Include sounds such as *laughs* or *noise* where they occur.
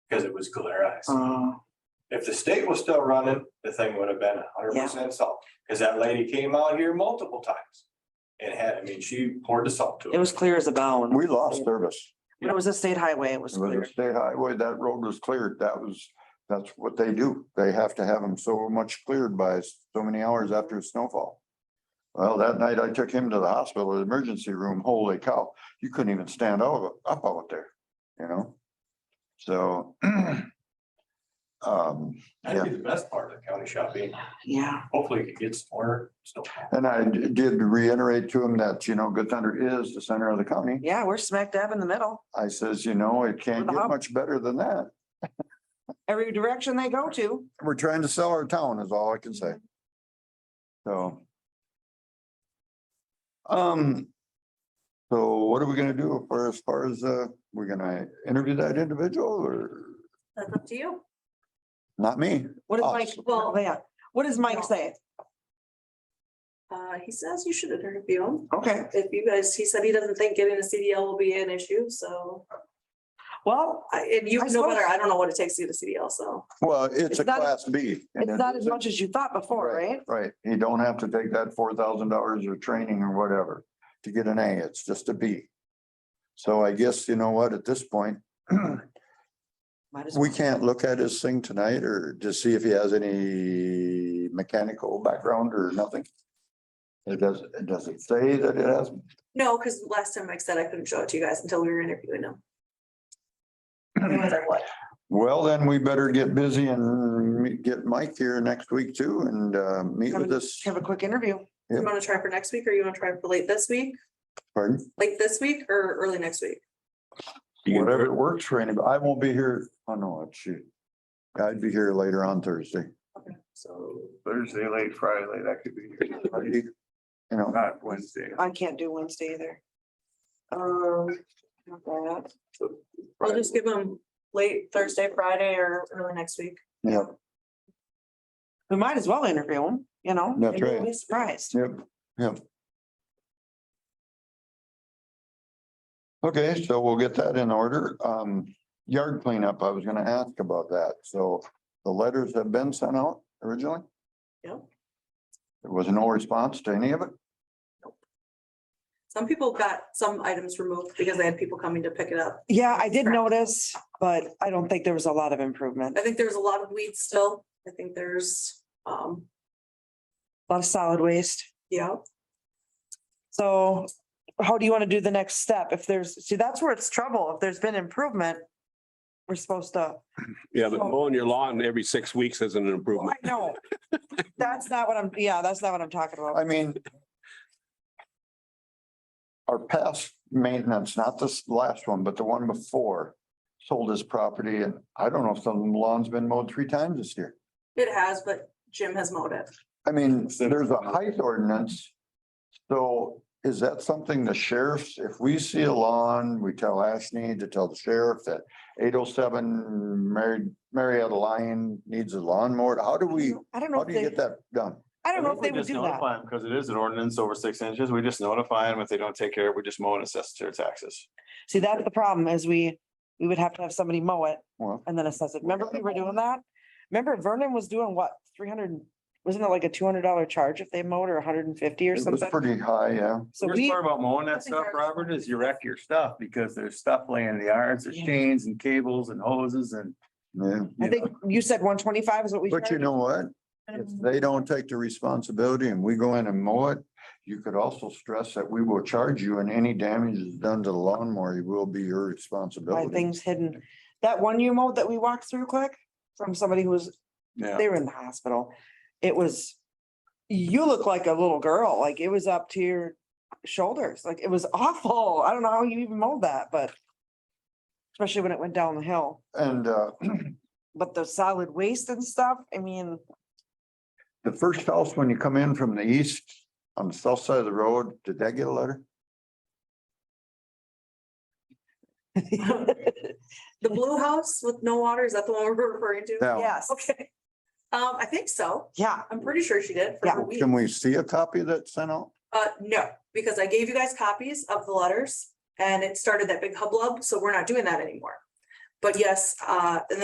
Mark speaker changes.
Speaker 1: because it was clear ice.
Speaker 2: Uh,
Speaker 1: If the state was still running, the thing would have been a hundred
Speaker 2: Yeah.
Speaker 1: percent salt, because that lady came out here multiple times. And had, I mean, she poured the salt to it.
Speaker 2: It was clear as a bone.
Speaker 3: We lost service.
Speaker 2: But it was a state highway. It was
Speaker 3: It was
Speaker 2: clear.
Speaker 3: a state highway. That road was cleared. That was, that's what they do. They have to have them so much cleared by so many hours after a snowfall. Well, that night I took him to the hospital, the emergency room. Holy cow, you couldn't even stand out- up out there, you know? So. *clears throat* Um,
Speaker 1: That'd be the best part of the county shopping.
Speaker 2: Yeah.
Speaker 1: Hopefully it gets more snow.
Speaker 3: and I d- did reiterate to him that, you know, Good Thunder is the center of the county.
Speaker 2: Yeah, we're smack dab in the middle.
Speaker 3: I says, you know, it can't
Speaker 2: With a
Speaker 3: get
Speaker 2: hub.
Speaker 3: much better than that.
Speaker 2: Every direction they go to.
Speaker 3: We're trying to sell our town is all I can say. So. Um. So what are we gonna do for as far as, uh, we're gonna interview that individual or
Speaker 4: That's up to you.
Speaker 3: not me?
Speaker 2: What is
Speaker 3: Oh.
Speaker 2: Mike?
Speaker 4: Well-
Speaker 2: yeah. What does Mike say?
Speaker 4: Uh, he says you should interview him.
Speaker 2: Okay.
Speaker 4: If you guys, he said he doesn't think getting a CDL will be an issue, so,
Speaker 2: Well,
Speaker 4: I- and you
Speaker 2: I
Speaker 4: know better,
Speaker 2: suppose-
Speaker 4: I don't know what it takes to get a CDL, so.
Speaker 3: Well, it's a
Speaker 2: It's not-
Speaker 3: class B. and
Speaker 2: it's
Speaker 3: it
Speaker 2: not as
Speaker 3: is a-
Speaker 2: much as you thought before, right?
Speaker 3: Right, you don't have to take that four thousand dollars of training or whatever to get an A, it's just a B. So I guess, you know what, at this point,
Speaker 2: Might as
Speaker 3: We
Speaker 2: well.
Speaker 3: can't look at his thing tonight or to see if he has any mechanical background or nothing? It does, it doesn't say that it has,
Speaker 4: No, because last time Mike said I couldn't show it to you guys until we were interviewing him. No matter what.
Speaker 3: well, then we better get busy and me- get Mike here next week too and uh, meet with us.
Speaker 2: Have a quick interview.
Speaker 4: You want to try for next week or you want to try for late this week,
Speaker 3: Pardon,
Speaker 4: late this week or early next week?
Speaker 3: whatever works for anybody, I won't be here, oh no, shoot. I'd be here later on Thursday.
Speaker 4: Okay,
Speaker 1: So
Speaker 5: Thursday, late Friday, that could be,
Speaker 3: You know,
Speaker 5: not Wednesday.
Speaker 2: I can't do Wednesday either. Um. not bad.
Speaker 4: I'll just give him late Thursday, Friday or early next week.
Speaker 3: yeah,
Speaker 2: We might as well interview him, you know?
Speaker 3: That's
Speaker 2: Maybe we'll
Speaker 3: right.
Speaker 2: Be surprised.
Speaker 3: Yep, yep. Okay, so we'll get that in order. Um, yard cleanup, I was gonna ask about that. So the letters have been sent out originally?
Speaker 4: Yep.
Speaker 3: There was no response to any of it?
Speaker 4: Some people got some items removed because they had people coming to pick it up.
Speaker 2: Yeah, I did notice, but I don't think there was a lot of improvement.
Speaker 4: I think there's a lot of weeds still. I think there's, um,
Speaker 2: A lot of solid waste.
Speaker 4: yeah,
Speaker 2: So how do you want to do the next step? If there's, see, that's where it's trouble. If there's been improvement, we're supposed to,
Speaker 6: Yeah, but
Speaker 2: So-
Speaker 6: mowing your lawn every six weeks is an improvement.
Speaker 2: I know. That's not what I'm, yeah, that's not what I'm talking
Speaker 3: I
Speaker 2: about.
Speaker 3: mean. Our past maintenance, not this last one, but the one before, sold his property and I don't know if the lawn's been mowed three times this year.
Speaker 4: it has, but Jim has mowed it.
Speaker 3: I mean, there's a height ordinance. So is that something the sheriffs, if we see a lawn, we tell Ashley to tell the sheriff that eight oh seven Mary, Marietta Lyon needs a lawnmower? How do we,
Speaker 2: I don't know
Speaker 3: how
Speaker 2: if
Speaker 3: do you
Speaker 2: they,
Speaker 3: get that done?
Speaker 2: I don't know if they would do that.
Speaker 1: Because it is an ordinance over six inches. We just notify them. If they don't take care of it, we just mow and assess their taxes.
Speaker 2: See, that's the problem is we, we would have to have somebody mow it
Speaker 3: Well,
Speaker 2: and then assess it. Remember we were doing that? Remember Vernon was doing what, three hundred, wasn't it like a two hundred dollar charge if they mowed or hundred and fifty or
Speaker 3: it was
Speaker 2: something?
Speaker 3: pretty high, yeah.
Speaker 2: So
Speaker 5: Worst
Speaker 2: we,
Speaker 5: part about mowing
Speaker 4: I
Speaker 5: that
Speaker 4: think
Speaker 5: stuff,
Speaker 4: ours-
Speaker 5: Robert, is you wreck your stuff because there's stuff laying in the yards, there's
Speaker 2: Yeah.
Speaker 5: chains and cables and hoses and.
Speaker 3: Yeah,
Speaker 2: I think you said one twenty-five is what we. Um,
Speaker 3: but you
Speaker 2: charged?
Speaker 3: know what? If they don't take the responsibility and we go in and mow it, you could also stress that we will charge you and any damage is done to the lawnmower, it will be your
Speaker 2: by
Speaker 3: responsibility.
Speaker 2: things hidden. That one you mowed that we walked through quick from somebody who was,
Speaker 5: Yeah.
Speaker 2: they were in the hospital. It was, you look like a little girl, like it was up to your shoulders, like it was awful. I don't know how you even mowed that, but especially when it went down the hill,
Speaker 3: And, uh,
Speaker 2: but the solid waste and stuff, I mean, *laughs*
Speaker 3: The first house, when you come in from the east, on the south side of the road, did that get a letter?
Speaker 4: The blue house with no water, is that the one we're *laughs* referring to?
Speaker 3: Now,
Speaker 2: yes,
Speaker 4: Okay. Um, I think so.
Speaker 2: yeah,
Speaker 4: I'm pretty sure she did for
Speaker 2: Yeah.
Speaker 4: her week.
Speaker 3: Can we see a copy that sent out?
Speaker 4: Uh, no, because I gave you guys copies of the letters and it started that big hubbub, so we're not doing that anymore. But yes, uh, and